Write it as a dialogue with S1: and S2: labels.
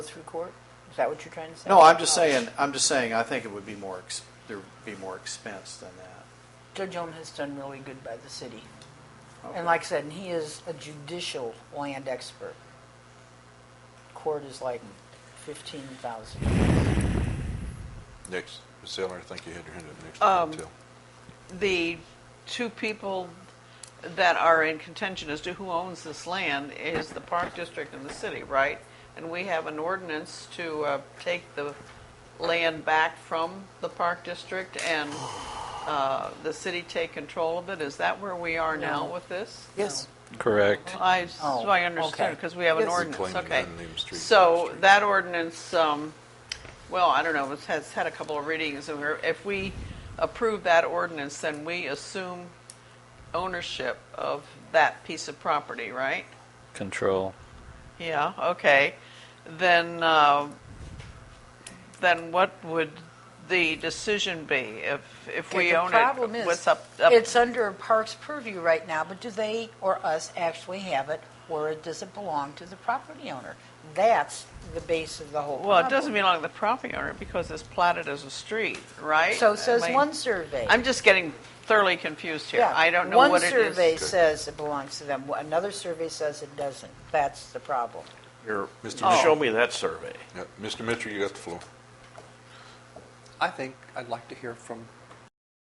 S1: go through court? Is that what you're trying to say?
S2: No, I'm just saying, I'm just saying, I think it would be more, ex- there'd be more expense than that.
S1: Judge Ohm has done really good by the city.
S2: Okay.
S1: And like I said, and he is a judicial land expert. Court is like fifteen thousand.
S3: Next, Ms. Eller, I think you had your hand up next.
S4: Um,
S3: Tell.
S4: the two people that are in contention as to who owns this land is the park district and the city, right? And we have an ordinance to uh, take the land back from the park district and uh, the city take control of it. Is that where we are now
S1: No.
S4: with this?
S1: Yes.
S3: Correct.
S4: I, so I
S1: Oh,
S4: understood,
S1: okay.
S4: because we have an
S1: Yes.
S4: ordinance,
S3: Reclaiming
S4: okay.
S3: unnamed street from the
S4: So
S3: street.
S4: that ordinance, um, well, I don't know, it's, has had a couple of readings, and we're- if we approve that ordinance, then we assume ownership of that piece of property, right?
S5: control.
S4: Yeah, okay. Then, uh, then what would the decision be if, if we own
S1: The problem
S4: it?
S1: is,
S4: What's up? up-
S1: it's under Parks purview right now, but do they or us actually have it, or does it belong to the property owner? That's the base of the whole problem.
S4: Well, it doesn't belong to the property owner because it's platted as a street, right?
S1: So
S4: I
S1: says
S4: mean-
S1: one survey.
S4: I'm just getting thoroughly confused here.
S1: Yeah.
S4: I don't know what it
S1: One survey
S4: is.
S1: says it belongs to them, another survey says it doesn't. That's the problem.
S6: Here,
S3: Mr.
S1: Oh.
S6: show me that survey.
S3: Yeah, Mr. Mitchell, you got the floor.
S7: I think I'd like to hear from